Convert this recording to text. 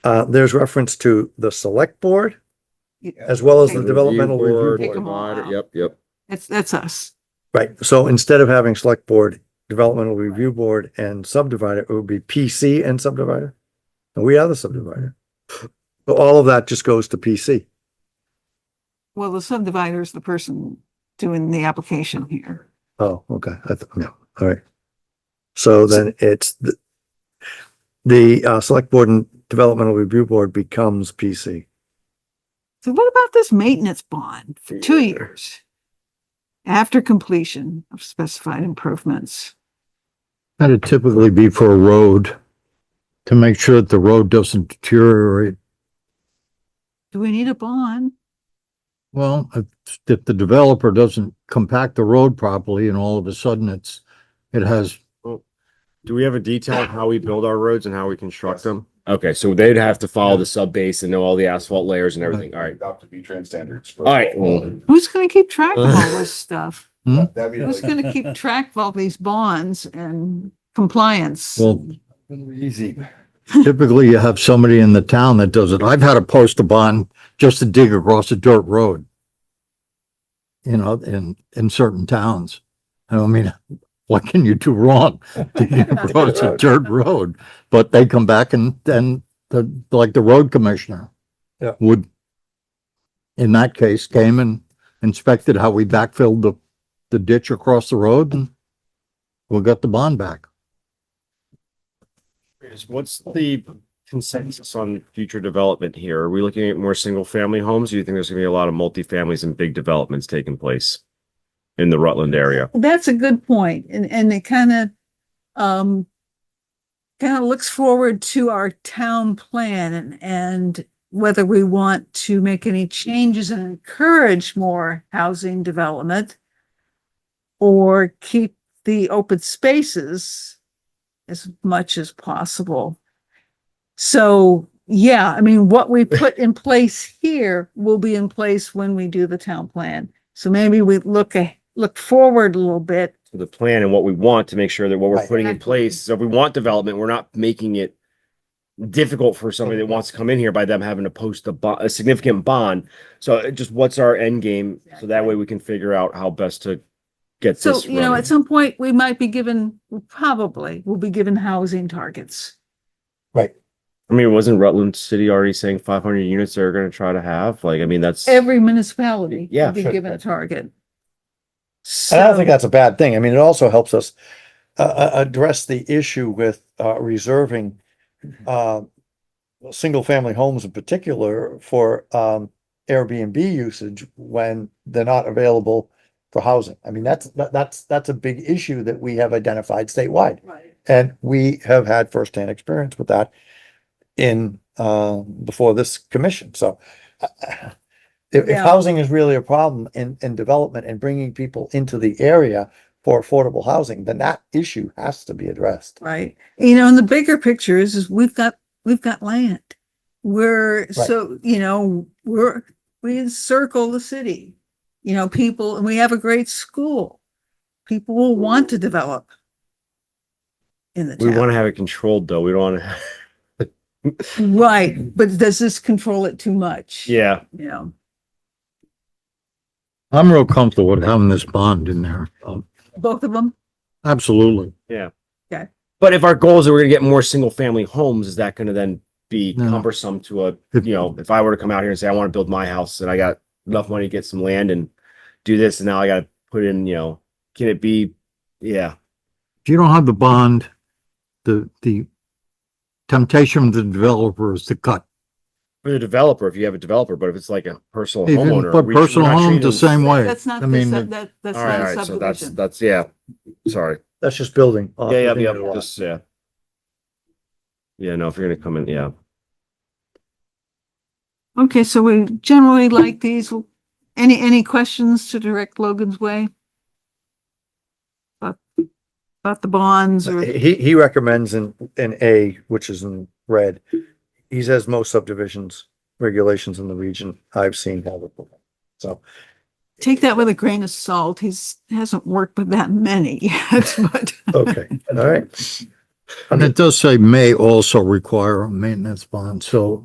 Uh, there's reference to the select board as well as the developmental board. Take 'em all Mod- out. Yep, yep. That's, that's us. Right, so instead of having select board, developmental review board and subdivider, it would be PC and subdivider. And we are the subdivider. So all of that just goes to PC. Well, the subdivider is the person doing the application here. Oh, okay, I thought, no, all right. So then it's the, the, uh, select board and developmental review board becomes PC. So what about this maintenance bond for two Yeah. years? After completion of specified improvements. That'd typically be for a road, to make sure that the road doesn't deteriorate. Do we need a bond? Well, if, if the developer doesn't compact the road properly and all of a sudden it's, it has, Do we have a detail Ah. on how we build our roads and how we construct them? Okay, so they'd have to follow the sub base and know all the asphalt layers and everything. All right. Adopt the B-Trans standards. for- All right, well- Who's going to keep track of all this stuff? That'd be Who's like, going to keep track of all these bonds and compliance? well, easy. typically you have somebody in the town that does it. I've had to post a bond just to dig across a dirt road. You know, in, in certain towns. I don't mean, what can you do wrong? Digging across a dirt road, but they come back and, and the, like the road commissioner. Yeah. Would, in that case, came and inspected how we backfilled the, the ditch across the road and we got the bond back. Is- What's the consensus on future development here? Are we looking at more single family homes? Do you think there's gonna be a lot of multifamilies and big developments taking place? In the Rutland area? That's a good point, and, and it kind of, um, kind of looks forward to our town plan and, and whether we want to make any changes and encourage more housing development or keep the open spaces as much as possible. So, yeah, I mean, what we put in place here will be in place when we do the town plan. So maybe we look, a- look forward a little bit. to the plan and what we want to make sure that what we're Right. putting in place. So if we want development, we're not making it difficult for somebody that wants to come in here by them having to post a bond, a significant bond. So it just what's our end game? So that way we can figure out how best to get So, this. you know, running. at some point, we might be given, probably will be given housing targets. I mean, wasn't Rutland City already saying five hundred units they're gonna try to have? Like, I mean, that's. Every municipality Yeah, will be sure. given a target. And I don't So- think that's a bad thing. I mean, it also helps us uh, uh, address the issue with uh, reserving uh, single-family homes in particular for um, Airbnb usage when they're not available for housing. I mean, that's, that- that's, that's a big issue that we have identified statewide. And we have had firsthand experience with that in, uh, before this commission, so. uh, If, if Yeah. housing is really a problem in, in development and bringing people into the area for affordable housing, then that issue has to be addressed. Right. You know, and the bigger picture is, is we've got, we've got land. We're, so, you know, we're, we encircle the city. You know, people, and we have a great school. People will want to develop in the We town. wanna have it controlled though. We don't wanna, Right, but does this control it too much? yeah. You know, I'm real comfortable with having this bond in there. Um, both of them? Absolutely. But if our goal is that we're gonna get more single family homes, is that gonna then be No. cumbersome to a If- you know, if I were to come out here and say, I want to build my house and I got enough money to get some land and do this, and now I got to put in, you know, can it be, yeah, If you don't have the bond, the, the temptation of the developer is to cut. for the developer, if you have a developer, but if it's like a personal Even homeowner, for we- we're personal not homes, treating- the same way. That's not, I the mean, sub- that, that's All right, not all right, so that's, subdivision. that's, yeah, sorry. That's just building. off Yeah, yeah, the thing Uh, yeah, that it was. just, yeah. Yeah, no, if you're gonna come in, yeah. Okay, so we generally like these. Any, any questions to direct Logan's way? About, about the bonds or? He, he recommends in, in A, which is in red, he says most subdivisions, regulations in the region I've seen have it. So, Take that with a grain of salt. He's, hasn't worked with that many yet, but okay, all right. And it does say may also require a maintenance bond, so